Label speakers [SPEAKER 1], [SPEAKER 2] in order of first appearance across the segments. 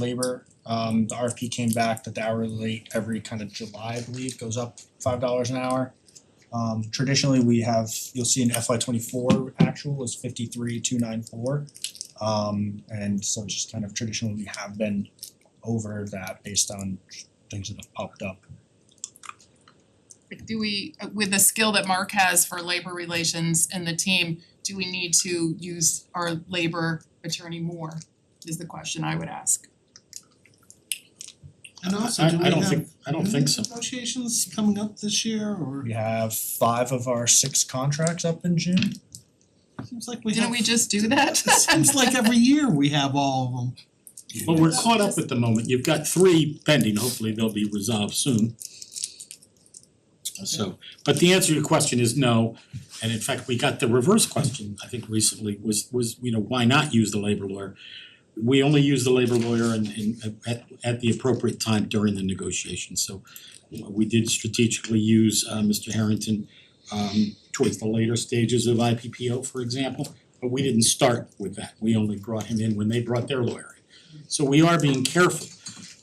[SPEAKER 1] labor. Um the RFP came back that the hourly rate every kind of July, I believe, goes up five dollars an hour. Um traditionally, we have, you'll see in FY twenty four actual is fifty three, two nine four. Um and so it's just kind of traditionally, we have been over that based on things that have popped up.
[SPEAKER 2] Like, do we, uh, with the skill that Mark has for labor relations and the team, do we need to use our labor attorney more? Is the question I would ask.
[SPEAKER 3] And also,
[SPEAKER 4] I-
[SPEAKER 3] do we
[SPEAKER 4] I don't
[SPEAKER 3] have
[SPEAKER 4] think- I don't think so.
[SPEAKER 3] union negotiations coming up this year or
[SPEAKER 1] We have five of our six contracts up in June.
[SPEAKER 3] seems like we have.
[SPEAKER 2] Didn't we just do that?
[SPEAKER 3] It seems like every year we have all of them.
[SPEAKER 4] Well, we're caught up at the moment, you've got three pending, hopefully they'll be resolved soon. So, but the answer to your question is no, and in fact, we got the reverse question, I think recently, was was, you know, why not use the labor lawyer? We only use the labor lawyer in in at at the appropriate time during the negotiation, so we did strategically use uh Mr. Harrington um towards the later stages of IPPO, for example, but we didn't start with that, we only brought him in when they brought their lawyer in. So we are being careful.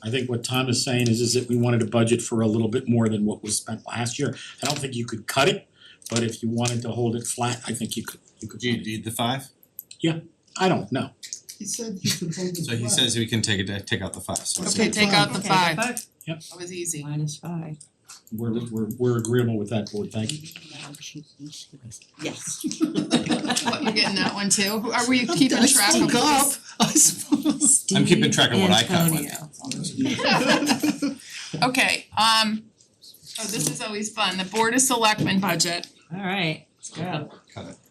[SPEAKER 4] I think what Tom is saying is is that we wanted to budget for a little bit more than what was spent last year. I don't think you could cut it, but if you wanted to hold it flat, I think you could you could.
[SPEAKER 5] Do you need the five?
[SPEAKER 4] I don't know.
[SPEAKER 3] He said he could hold the
[SPEAKER 5] So he
[SPEAKER 3] flag.
[SPEAKER 5] says we can take it, take out the five, so it's
[SPEAKER 2] Okay, take out the
[SPEAKER 6] Okay.
[SPEAKER 2] five.
[SPEAKER 3] Five.
[SPEAKER 4] Yep.
[SPEAKER 2] That was easy.
[SPEAKER 6] Minus five.
[SPEAKER 4] We're we're we're agreeable with that board, thank you.
[SPEAKER 6] Yes.
[SPEAKER 2] What, you're getting that one too? Are we keeping
[SPEAKER 3] I
[SPEAKER 2] track of
[SPEAKER 3] spoke up,
[SPEAKER 2] this?
[SPEAKER 3] I suppose.
[SPEAKER 5] I'm keeping track of what I cut with.
[SPEAKER 6] Antonio.
[SPEAKER 2] Okay, um, oh, this is always fun. The Board of Selectmen budget.
[SPEAKER 6] Alright, let's go.
[SPEAKER 5] Cut it.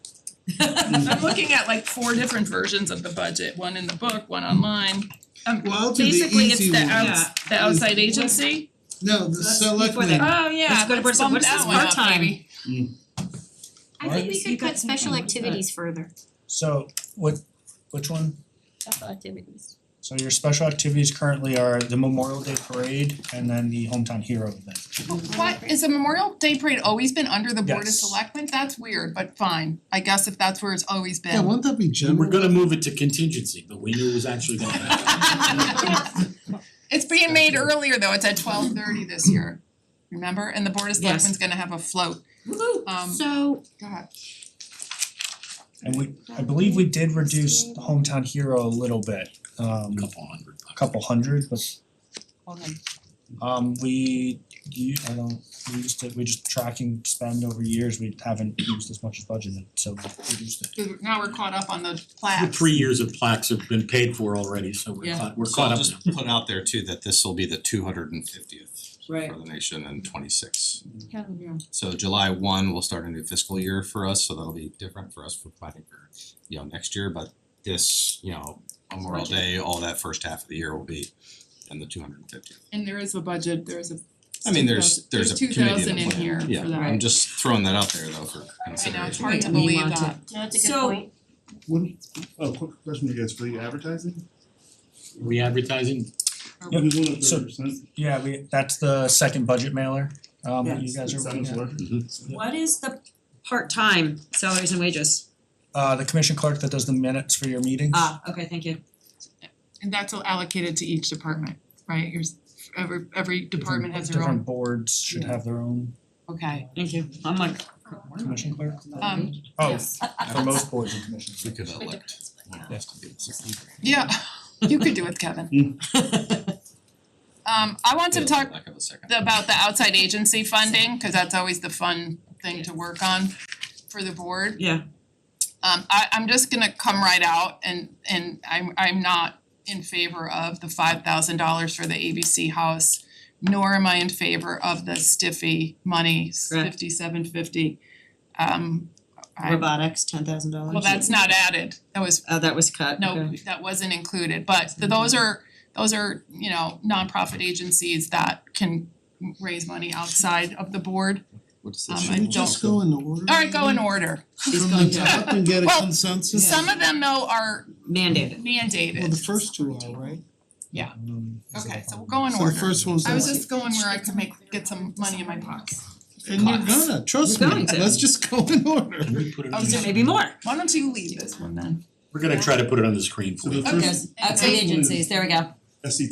[SPEAKER 2] I'm looking at like four different versions of the budget, one in the book, one online. Um,
[SPEAKER 3] Well, I'll do the
[SPEAKER 2] basically, it's
[SPEAKER 3] easy
[SPEAKER 2] the
[SPEAKER 3] one.
[SPEAKER 2] outs, the outside agency.
[SPEAKER 3] No, the
[SPEAKER 6] That's before the-
[SPEAKER 3] selectmen,
[SPEAKER 2] Oh, yeah,
[SPEAKER 6] Let's go to
[SPEAKER 2] let's
[SPEAKER 6] Board of-
[SPEAKER 2] bump
[SPEAKER 6] what is
[SPEAKER 2] that
[SPEAKER 6] this
[SPEAKER 2] one up,
[SPEAKER 6] part-time?
[SPEAKER 2] maybe.
[SPEAKER 7] I think we
[SPEAKER 6] You
[SPEAKER 7] could
[SPEAKER 6] got
[SPEAKER 7] cut special
[SPEAKER 6] something, what's that?
[SPEAKER 7] activities further.
[SPEAKER 1] So what, which one?
[SPEAKER 2] Uh,
[SPEAKER 7] Special activities.
[SPEAKER 1] So your special activities currently are the Memorial Day Parade and then the Hometown Hero event.
[SPEAKER 2] What, is the Memorial Day parade always been under the Board of
[SPEAKER 1] Yes.
[SPEAKER 2] Selectmen? That's weird, but fine. I guess if that's where it's always
[SPEAKER 3] yeah,
[SPEAKER 2] been.
[SPEAKER 3] won't that be
[SPEAKER 4] We
[SPEAKER 3] general?
[SPEAKER 4] were gonna move it to contingency, but we knew it was actually gonna happen.
[SPEAKER 2] It's being made earlier though, it's at twelve thirty this year, remember? And the Board of
[SPEAKER 6] Yes.
[SPEAKER 2] Selectmen's gonna have a float. Um,
[SPEAKER 7] So
[SPEAKER 2] go ahead.
[SPEAKER 1] And we, I believe we did reduce the Hometown Hero a little bit, um
[SPEAKER 4] A couple hundred bucks.
[SPEAKER 1] a couple hundred, but
[SPEAKER 2] Hold on.
[SPEAKER 1] um we you, I don't, we just did, we just tracking spend over years, we haven't used as much as budgeted, so we reduced it.
[SPEAKER 2] 'Cause now we're caught up on the
[SPEAKER 4] The
[SPEAKER 2] plaques.
[SPEAKER 4] three years of plaques have been paid for already, so we're
[SPEAKER 6] Yeah.
[SPEAKER 4] caught we're
[SPEAKER 5] So
[SPEAKER 4] caught
[SPEAKER 5] I'll
[SPEAKER 4] up now.
[SPEAKER 5] just put out there too that this will be the two hundred and fiftieth
[SPEAKER 6] Right.
[SPEAKER 5] for the nation and twenty six.
[SPEAKER 6] Yeah, yeah.
[SPEAKER 5] So July one will start a new fiscal year for us, so that'll be different for us for planning for, you know, next year, but this, you know, Memorial
[SPEAKER 6] Budget.
[SPEAKER 5] Day, all that first half of the year will be in the two hundred and fiftieth.
[SPEAKER 2] And there is a budget, there's a.
[SPEAKER 5] I mean, there's there's a committee and
[SPEAKER 2] two
[SPEAKER 5] a
[SPEAKER 2] thousand in
[SPEAKER 5] plan.
[SPEAKER 2] here
[SPEAKER 5] Yeah,
[SPEAKER 2] for that.
[SPEAKER 5] I'm just throwing that out there though for
[SPEAKER 2] I know, it's
[SPEAKER 5] consideration.
[SPEAKER 2] hard to
[SPEAKER 6] Right.
[SPEAKER 2] believe
[SPEAKER 6] Name on
[SPEAKER 2] that.
[SPEAKER 7] that's a good
[SPEAKER 6] So-
[SPEAKER 7] point.
[SPEAKER 8] One, uh, quick question you guys, for the advertising?
[SPEAKER 4] Re-advertising,
[SPEAKER 1] Yep.
[SPEAKER 8] Who's one of
[SPEAKER 1] So-
[SPEAKER 8] thirty percent?
[SPEAKER 1] Yeah, we, that's the second budget mailer, um that you
[SPEAKER 8] Is
[SPEAKER 1] guys are
[SPEAKER 8] that
[SPEAKER 1] looking
[SPEAKER 8] what's
[SPEAKER 1] at.
[SPEAKER 8] working?
[SPEAKER 6] What is the part-time salaries and wages?
[SPEAKER 1] Uh the commission clerk that does the minutes for your meetings.
[SPEAKER 2] Uh,
[SPEAKER 6] Ah, okay, thank you.
[SPEAKER 2] And that's allocated to each department, right? Yours, every every department has their
[SPEAKER 1] Different
[SPEAKER 2] own,
[SPEAKER 1] boards should have their own
[SPEAKER 2] okay.
[SPEAKER 6] Thank you. I'm like.
[SPEAKER 1] commission clerk.
[SPEAKER 2] Um,
[SPEAKER 1] Oh,
[SPEAKER 2] yes.
[SPEAKER 1] for most boards and commissions.
[SPEAKER 5] We could uh, elect one of us to be the secretary.
[SPEAKER 2] Yeah, you could do it, Kevin. Um, I want to
[SPEAKER 5] Yeah,
[SPEAKER 2] talk
[SPEAKER 5] lack of a second.
[SPEAKER 2] about the outside agency funding, cause that's always the fun thing to work on for the board.
[SPEAKER 6] Yeah.
[SPEAKER 2] Um I I'm just gonna come right out and and I'm I'm not in favor of the five thousand dollars for the ABC house. Nor am I in favor of the stiffy money,
[SPEAKER 6] Correct.
[SPEAKER 2] fifty seven fifty. Um I,
[SPEAKER 6] Robotics, ten thousand dollars.
[SPEAKER 2] well, that's not added, that was
[SPEAKER 6] Oh, that was cut,
[SPEAKER 2] no,
[SPEAKER 6] okay.
[SPEAKER 2] that wasn't included, but th- those are, those are, you know, nonprofit agencies that can raise money outside of the board.
[SPEAKER 5] What's
[SPEAKER 2] Um,
[SPEAKER 5] this?
[SPEAKER 2] I
[SPEAKER 3] Should we just go in order?
[SPEAKER 2] Alright, go in order.
[SPEAKER 6] She's
[SPEAKER 3] From
[SPEAKER 6] going
[SPEAKER 3] the
[SPEAKER 6] to-
[SPEAKER 3] top and get a
[SPEAKER 2] Well,
[SPEAKER 3] consensus?
[SPEAKER 2] Some of them though are
[SPEAKER 6] Mandated.
[SPEAKER 3] Well, the
[SPEAKER 2] mandated.
[SPEAKER 3] first two are, right?
[SPEAKER 1] Um, is
[SPEAKER 2] Okay,
[SPEAKER 1] that
[SPEAKER 2] so we'll
[SPEAKER 1] fine?
[SPEAKER 2] go in
[SPEAKER 3] So the
[SPEAKER 2] order.
[SPEAKER 3] first one's
[SPEAKER 2] I was
[SPEAKER 3] us.
[SPEAKER 2] just going where I could make, get some money in my pocket.
[SPEAKER 3] And you're gonna, trust
[SPEAKER 6] We're
[SPEAKER 3] me,
[SPEAKER 6] going to.
[SPEAKER 3] let's just go in order.
[SPEAKER 4] can we put it on?
[SPEAKER 2] Oh,
[SPEAKER 4] the-
[SPEAKER 2] so
[SPEAKER 6] Maybe more.
[SPEAKER 2] Why don't you leave this one then?
[SPEAKER 4] We're gonna try to put it on the screen for
[SPEAKER 8] So
[SPEAKER 4] you.
[SPEAKER 8] the
[SPEAKER 2] Okay.
[SPEAKER 8] first,
[SPEAKER 6] Outside agencies, there we go.
[SPEAKER 8] SET